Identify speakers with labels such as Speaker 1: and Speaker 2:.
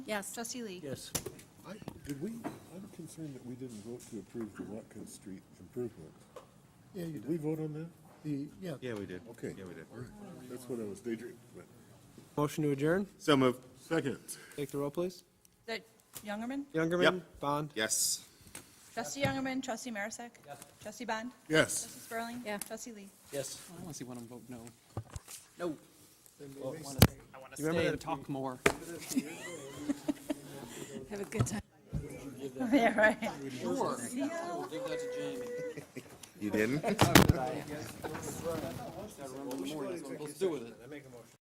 Speaker 1: Yes.
Speaker 2: Trustee Lee?
Speaker 3: Yes.
Speaker 4: I, did we, I'm concerned that we didn't vote to approve the Watkins Street improvement.
Speaker 5: Yeah, you
Speaker 4: Did
Speaker 5: did.
Speaker 4: we vote on that?
Speaker 5: The, yeah,
Speaker 6: Yeah, we did.
Speaker 4: Okay.
Speaker 6: Yeah, we did.
Speaker 4: All right. That's what I was daydreaming. about.
Speaker 3: Motion to adjourn?
Speaker 6: So moved.
Speaker 4: Second.
Speaker 3: Take the roll, please.
Speaker 2: That Youngerman?
Speaker 3: Youngerman? Bond?
Speaker 6: Yes.
Speaker 2: Trustee Youngerman, trustee Marisak? Trustee Bond?
Speaker 4: Yes.
Speaker 2: Trustee Spurling?
Speaker 1: Yeah.
Speaker 2: Trustee Lee?
Speaker 7: Yes. I want to see one of them vote no. No. I want to
Speaker 3: You remember
Speaker 7: stay and
Speaker 3: that-
Speaker 7: talk more.
Speaker 1: Have a good time.
Speaker 2: Yeah, right.
Speaker 7: Sure.
Speaker 2: See ya.
Speaker 7: Give that to Jamie.
Speaker 6: You didn't?
Speaker 7: Gotta remember the morning, that's what I'm supposed to do with it.